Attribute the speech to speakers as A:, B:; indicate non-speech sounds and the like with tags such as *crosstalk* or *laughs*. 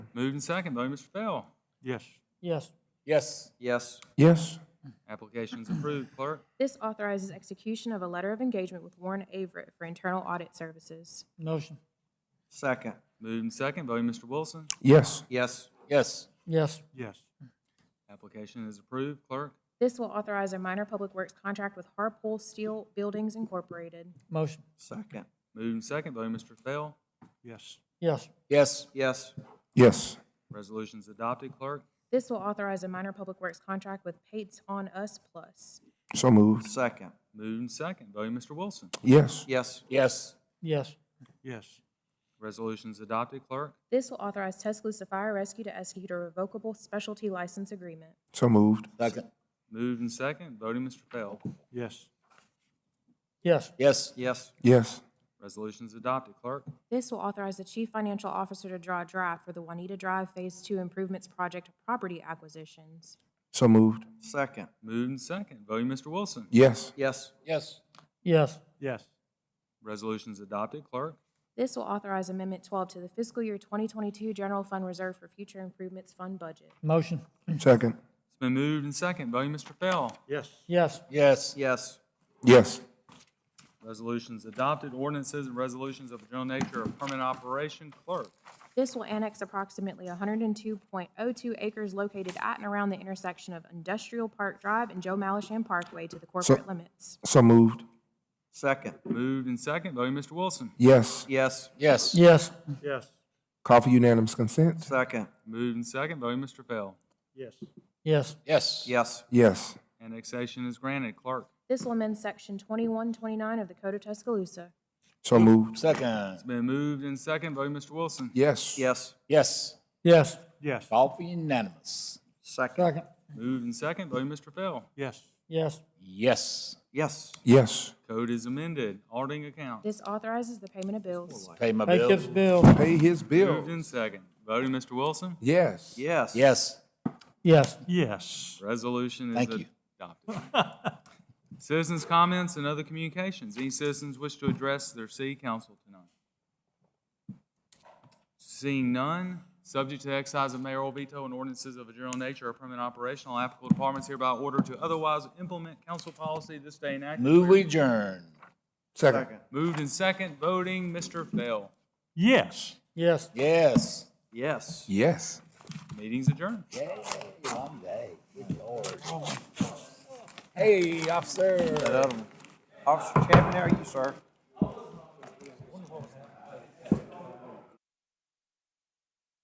A: Moved and second, voting Mr. Bell.
B: Yes.
C: Yes.
D: Yes.
E: Yes.
B: Yes.
A: Application's approved. Clerk,
F: This authorizes execution of a letter of engagement with Warren Averett for internal audit services.
C: Motion.
E: Second.
A: moved and second, voting Mr. Wilson.
B: Yes.
E: Yes.
D: Yes.
C: Yes.
B: Yes.
A: Application is approved. Clerk,
F: This will authorize a minor public works contract with Harpole Steel Buildings Incorporated.
C: Motion.
E: Second.
A: moved and second, voting Mr. Bell.
B: Yes.
C: Yes.
D: Yes.
E: Yes.
B: Yes.
A: Resolution's adopted. Clerk,
F: This will authorize a minor public works contract with Pates on Us Plus.
B: So moved.
E: Second.
A: moved and second, voting Mr. Wilson.
B: Yes.
E: Yes.
D: Yes.
C: Yes.
B: Yes.
A: Resolution's adopted. Clerk,
F: This will authorize Tuscaloosa Fire Rescue to execute a revocable specialty license agreement.
B: So moved.
D: Second.
A: moved and second, voting Mr. Bell.
B: Yes.
C: Yes.
D: Yes.
E: Yes.
B: Yes.
A: Resolution's adopted. Clerk,
F: This will authorize the chief financial officer to draw a draft for the Juanita Drive Phase Two Improvements Project property acquisitions.
B: So moved.
E: Second.
A: moved and second, voting Mr. Wilson.
B: Yes.
E: Yes.
D: Yes.
C: Yes.
B: Yes.
A: Resolution's adopted. Clerk,
F: This will authorize Amendment 12 to the fiscal year 2022 General Fund Reserve for Future Improvements Fund budget.
C: Motion.
B: Second.
A: it's been moved and second, voting Mr. Bell.
B: Yes.
C: Yes.
D: Yes.
E: Yes.
B: Yes.
A: Resolutions adopted. Ordinances and resolutions of a general nature of permanent operation. Clerk,
F: This will annex approximately 102.02 acres located at and around the intersection of Industrial Park Drive and Joe Malisham Parkway to the corporate limits.
B: So moved.
E: Second.
A: moved and second, voting Mr. Wilson.
B: Yes.
E: Yes.
D: Yes.
C: Yes.
B: Yes. Call for unanimous consent?
E: Second.
A: Moved and second, voting Mr. Bell.
B: Yes.
C: Yes.
D: Yes.
E: Yes.
B: Yes.
A: Annexation is granted. Clerk,
F: This will amend Section 2129 of the Code of Tuscaloosa.
B: So moved.
D: Second.
A: it's been moved and second, voting Mr. Wilson.
B: Yes.
E: Yes.
D: Yes.
C: Yes.
B: Yes.
D: Call for unanimous.
E: Second.
C: Second.
A: Moved and second, voting Mr. Bell.
B: Yes.
C: Yes.
D: Yes.
E: Yes.
B: Yes.
A: Code is amended. Auditing account.
F: This authorizes the payment of bills.
D: Pay my
C: Pay Kip's
D: bills.
C: bill.
B: Pay his
A: Moved
B: bill.
A: and second, voting Mr. Wilson.
B: Yes.
E: Yes.
D: Yes.
C: Yes.
B: Yes.
A: Resolution
D: Thank
A: is
D: you.
A: adopted. *laughs* Citizens' comments and other communications. Any citizens wish to address their city council tonight? Seeing none, subject to exercise of mayoral veto and ordinances of a general nature or permanent operational applicable departments hereby order to otherwise implement council policy this day enacted.
D: Move we adjourn.
B: Second.
A: Moved and second, voting, Mr. Bell.
B: Yes.
C: Yes.
D: Yes.
E: Yes.
B: Yes.
A: Meeting's adjourned.
D: Yay, one day. Good lord. Hey, officer.
E: Officer Chapman, how are you, sir?